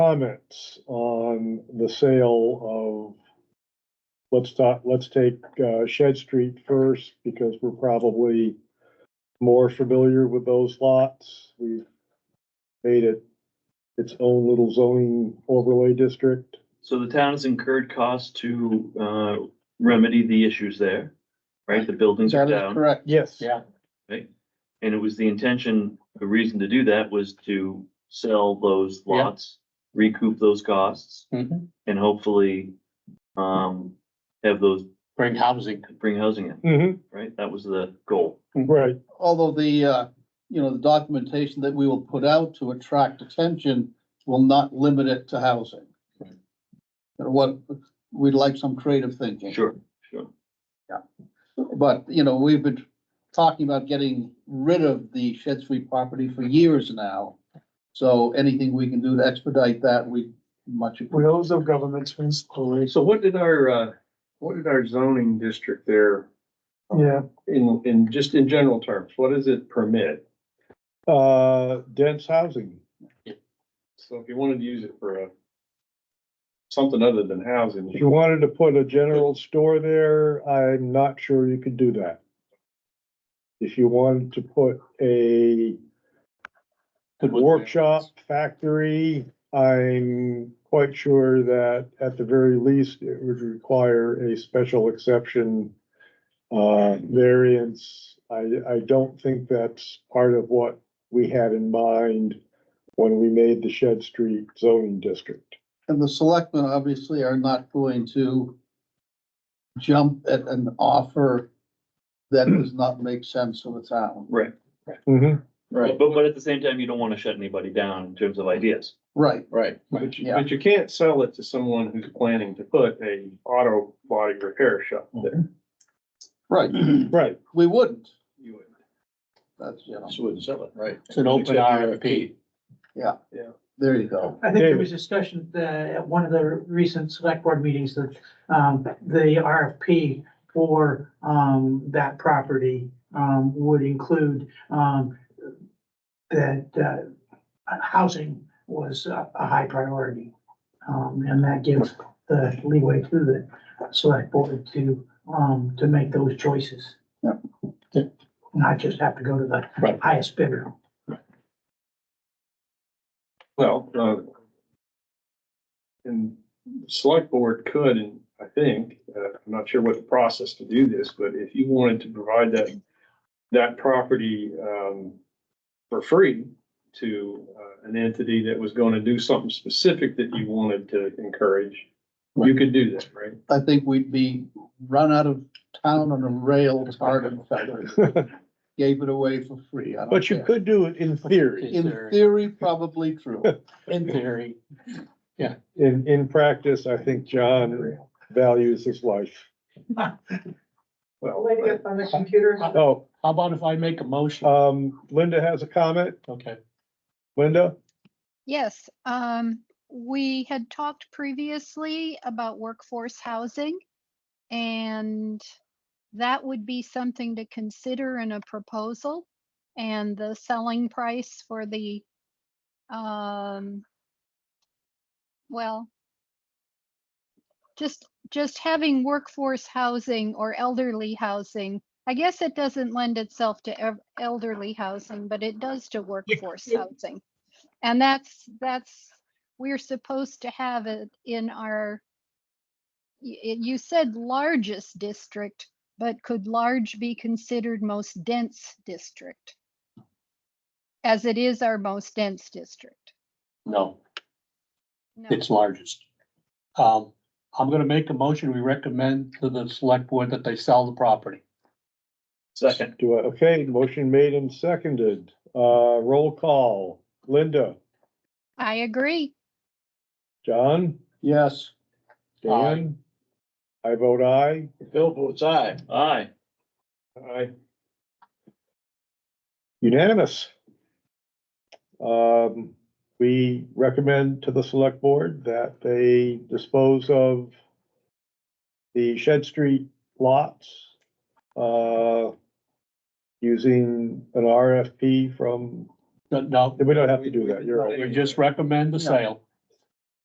comments on the sale of, let's talk, let's take uh, Shed Street first, because we're probably more familiar with those lots. We've made it its own little zoning overlay district. So the town has incurred costs to, uh, remedy the issues there, right? The buildings are That is down, correct. Yes. Yeah. right? And it was the intention, the reason to do that was to sell those Yeah. lots, recoup those costs, Mhm. and hopefully, um, have those, Bring housing. bring housing in, hmm right? That was the goal. right. Although the, uh, you know, the documentation that we will put out to attract attention will not limit it to housing. Right. And What, we'd like some creative thinking. Sure, sure. But, you know, we've been talking about getting rid of the Shed Street property for years now. So anything we can do to expedite that, we much. appreciate. Wheels of government's principles. So what did our, uh, what did our zoning district there? Yeah, In, in, just in general terms, what does it permit? Uh, dense housing. So if you wanted to use it for a, something other than housing, If you wanted to put a general store there, I'm not sure you could do that. If you wanted to put a workshop, factory, I'm quite sure that at the very least, it would require a special exception. Uh, variance, I, I don't think that's part of what we had in mind when we made the Shed Street zoning district. And the selectmen obviously are not going to jump at an offer that does not make sense for the town. Right. Mhm. But, but at the same time, you don't wanna shut anybody down in terms of ideas. Right, right. but you, Yeah. but you can't sell it to someone who's planning to put a auto body repair shop there. right. right. We wouldn't. You would. That's, you know, She wouldn't sell it, right? It's an open RFP. there you go. I think there David. was discussion uh, at one of the recent select board meetings that um, the RFP for um, that property um, would include um, that uh, housing was a a high priority. Um, And that gives the leeway to the select board to, um, to make those choices. Yep. Not just have to go to the Right. highest bidder. Well, uh, and the select board could, and I think, uh, I'm not sure what the process to do this, but if you wanted to provide that, that property, um, for free to, uh, an entity that was going to do something specific that you wanted to encourage, you could do that, right? I think we'd be run out of town on a rail, tarred and feathered, gave it away for free. I don't But you care. could do it in theory. In theory, probably true. In theory, In, in practice, I think John values his life. Well, on the computer. Oh, how about if I make a motion? um, Linda has a comment. Okay. Linda? Yes, um, we had talked previously about workforce housing. And that would be something to consider in a proposal. And the selling price for the, um, well, just, just having workforce housing or elderly housing. I guess it doesn't lend itself to ev- elderly housing, but it does to workforce housing. And that's, that's, we're supposed to have it in our, y- y- you said largest district, but could large be considered most dense district? As it is our most dense district. No, No. it's largest. Um, I'm gonna make a motion. We recommend to the select board that they sell the property. Second. Do I, okay, motion made and seconded. Uh, roll call. Linda, I agree. John, Yes. Dan? I vote aye. Bill votes aye. Aye. I, Unanimous. Um, we recommend to the select board that they dispose of the Shed Street lots, uh, using an RFP from, No, No, we don't have to do that, you're right. we just recommend the sale.